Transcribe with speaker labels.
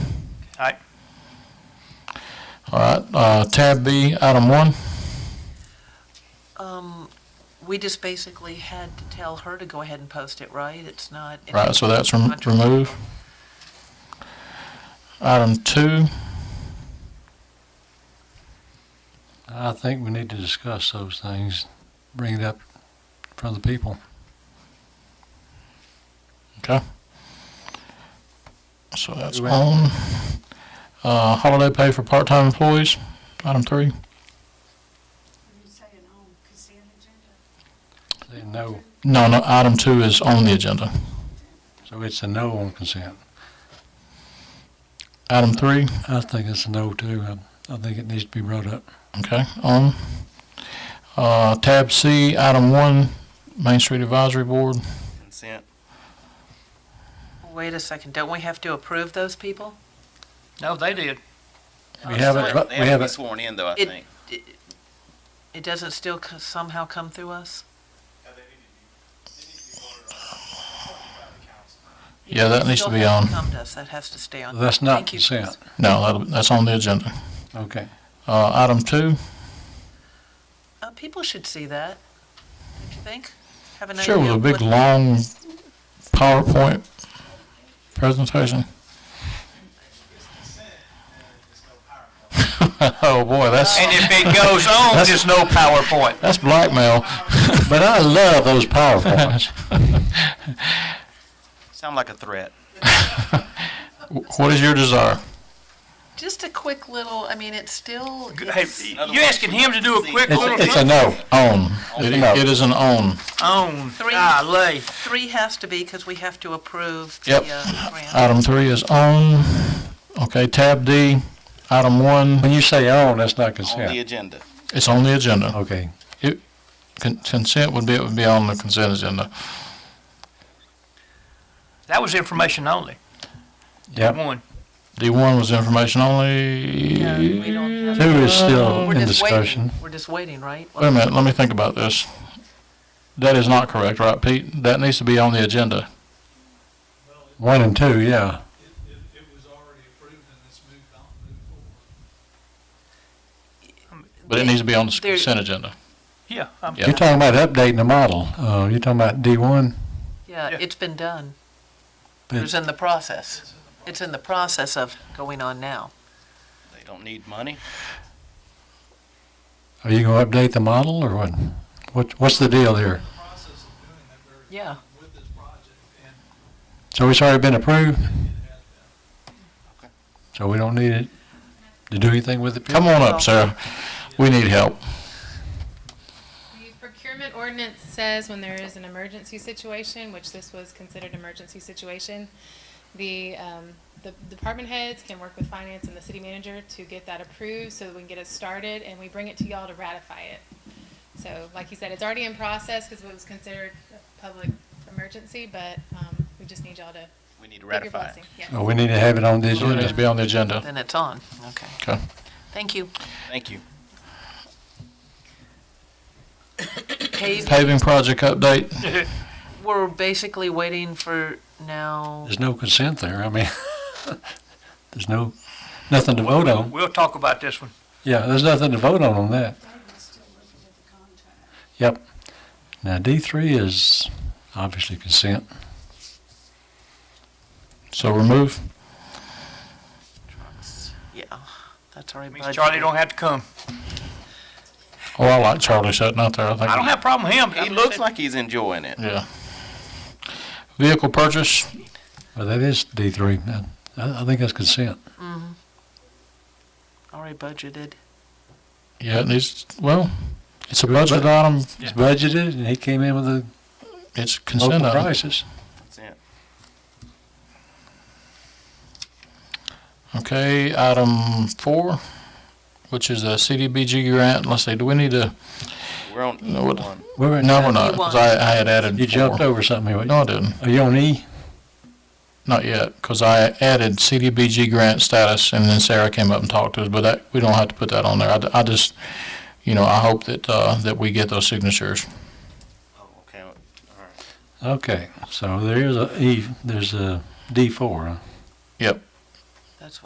Speaker 1: Aye.
Speaker 2: All right, uh, tab B, item one.
Speaker 3: Um, we just basically had to tell her to go ahead and post it, right? It's not.
Speaker 2: Right, so that's rem- removed. Item two,
Speaker 4: I think we need to discuss those things, bring it up from the people.
Speaker 2: okay. So that's on. Uh, holiday pay for part-time employees, item three.
Speaker 5: Are you saying on consent agenda?
Speaker 4: Say no,
Speaker 2: No, no, item two is on the agenda.
Speaker 4: so it's a no on consent.
Speaker 2: Item three,
Speaker 4: I think it's a no too. I, I think it needs to be brought up.
Speaker 2: okay, on. Uh, tab C, item one, Main Street Advisory Board.
Speaker 1: Consent.
Speaker 3: Wait a second, don't we have to approve those people?
Speaker 1: No, they did.
Speaker 3: Oh,
Speaker 4: We haven't, but
Speaker 6: They
Speaker 4: Oh,
Speaker 6: have to be
Speaker 4: we haven't,
Speaker 6: sworn in, though, I
Speaker 3: It-
Speaker 6: think.
Speaker 3: It doesn't still co- somehow come through us?
Speaker 2: Yeah, that needs to
Speaker 3: Still
Speaker 2: be
Speaker 3: has
Speaker 2: on.
Speaker 3: Come to us, that has to stay on.
Speaker 4: that's not
Speaker 3: Thank you, Chris.
Speaker 4: consent.
Speaker 2: No, that'll- that's on the agenda.
Speaker 4: Okay.
Speaker 2: Uh, item two,
Speaker 3: Uh, people should see that, don't you think? Have an
Speaker 2: Sure, with
Speaker 3: idea
Speaker 2: a
Speaker 3: of
Speaker 2: big,
Speaker 3: what-
Speaker 2: long PowerPoint presentation. Oh, boy, that's,
Speaker 1: And if it goes on, there's no PowerPoint.
Speaker 2: that's blackmail.
Speaker 4: But I love those PowerPoints.
Speaker 6: Sound like a threat.
Speaker 2: What is your desire?
Speaker 3: Just a quick little, I mean, it's still,
Speaker 1: Hey,
Speaker 3: it's-
Speaker 1: you asking him to do a quick little
Speaker 4: It's, it's a no.
Speaker 2: Own. It it is an own.
Speaker 1: on?
Speaker 3: Three.
Speaker 1: Golly.
Speaker 3: three has to be because we have to approve the
Speaker 2: Yep.
Speaker 3: uh, grant.
Speaker 2: Item three is own. Okay, tab D, item one,
Speaker 4: When you say on, that's not
Speaker 6: On the
Speaker 4: consent.
Speaker 6: agenda.
Speaker 2: it's on the agenda.
Speaker 4: Okay.
Speaker 2: Con- Consent would be, it would be on the consent agenda.
Speaker 1: That was information only.
Speaker 4: Yep.
Speaker 1: One.
Speaker 2: D one was information only.
Speaker 3: Yeah, we don't have
Speaker 4: Two
Speaker 3: to-
Speaker 4: is still
Speaker 3: We're
Speaker 4: in
Speaker 3: just waiting.
Speaker 4: discussion.
Speaker 3: We're just waiting, right?
Speaker 2: Wait a minute, let me think about this. That is not correct, right, Pete? That needs to be on the agenda.
Speaker 4: One and two, yeah.
Speaker 7: It, it, it was already approved and it's moved on, moved forward.
Speaker 2: But it needs to be on the
Speaker 3: There-
Speaker 2: consent agenda.
Speaker 1: Yeah. I'm-
Speaker 2: Yeah.
Speaker 4: You're talking about updating the model. Uh, you're talking about D one?
Speaker 3: Yeah,
Speaker 1: Yeah.
Speaker 3: it's been done.
Speaker 4: But-
Speaker 3: It was in the process. It's in the process of going on now.
Speaker 6: They don't need money.
Speaker 4: Are you gonna update the model or what? What, what's the deal here?
Speaker 7: The process of doing that, we're
Speaker 3: Yeah.
Speaker 7: with this project and
Speaker 4: So it's already been approved,
Speaker 7: it has been.
Speaker 4: so we don't need it to do anything with it?
Speaker 2: Come on up, Sarah. We need help.
Speaker 8: The procurement ordinance says when there is an emergency situation, which this was considered emergency situation, the, um, the department heads can work with finance and the city manager to get that approved so that we can get it started and we bring it to y'all to ratify it. So like you said, it's already in process because it was considered a public emergency, but, um, we just need y'all to
Speaker 6: We need to
Speaker 8: give your
Speaker 6: ratify it.
Speaker 8: blessing. Yeah.
Speaker 4: Oh, we need to have it on the
Speaker 2: It needs to
Speaker 4: agenda.
Speaker 2: be on the agenda.
Speaker 3: Then it's on. Okay.
Speaker 2: Okay.
Speaker 3: Thank you.
Speaker 6: Thank you.
Speaker 3: Pave,
Speaker 2: Paving project update.
Speaker 3: we're basically waiting for now.
Speaker 4: There's no consent there, I mean, there's no, nothing to vote on.
Speaker 1: We'll talk about this one.
Speaker 4: Yeah, there's nothing to vote on on that.
Speaker 5: David's still looking at the contract.
Speaker 4: Yep. Now, D three is obviously consent.
Speaker 2: So remove.
Speaker 3: Yeah, that's already
Speaker 1: Means Charlie
Speaker 3: budgeted.
Speaker 1: don't have to come.
Speaker 2: Oh, I like Charlie sitting out there. I think.
Speaker 1: I don't have a problem with him.
Speaker 6: He looks like he's enjoying it.
Speaker 2: Yeah. Vehicle purchase.
Speaker 4: Well, that is D three. I, I think that's consent.
Speaker 3: Already budgeted.
Speaker 2: Yeah, it needs, well, it's a budget item.
Speaker 4: It's budgeted and he came in with the
Speaker 2: It's consent
Speaker 4: local
Speaker 2: item.
Speaker 4: prices.
Speaker 6: That's it.
Speaker 2: Okay, item four, which is a CDBG grant. Let's see, do we need to,
Speaker 6: We're on
Speaker 2: No, what-
Speaker 6: E1.
Speaker 4: Wait, wait,
Speaker 2: no, we're not, 'cause I, I had added
Speaker 4: You jumped
Speaker 2: four.
Speaker 4: over something. here.
Speaker 2: No, I didn't.
Speaker 4: Are you on E?
Speaker 2: Not yet, because I added CDBG grant status, and then Sarah came up and talked to us, but that, we don't have to put that on there. I d- I, just, you know, I hope that, uh, that we get those signatures.
Speaker 6: Oh, okay. All right.
Speaker 4: Okay, so there is a E, there's a D four, huh?
Speaker 2: Yep.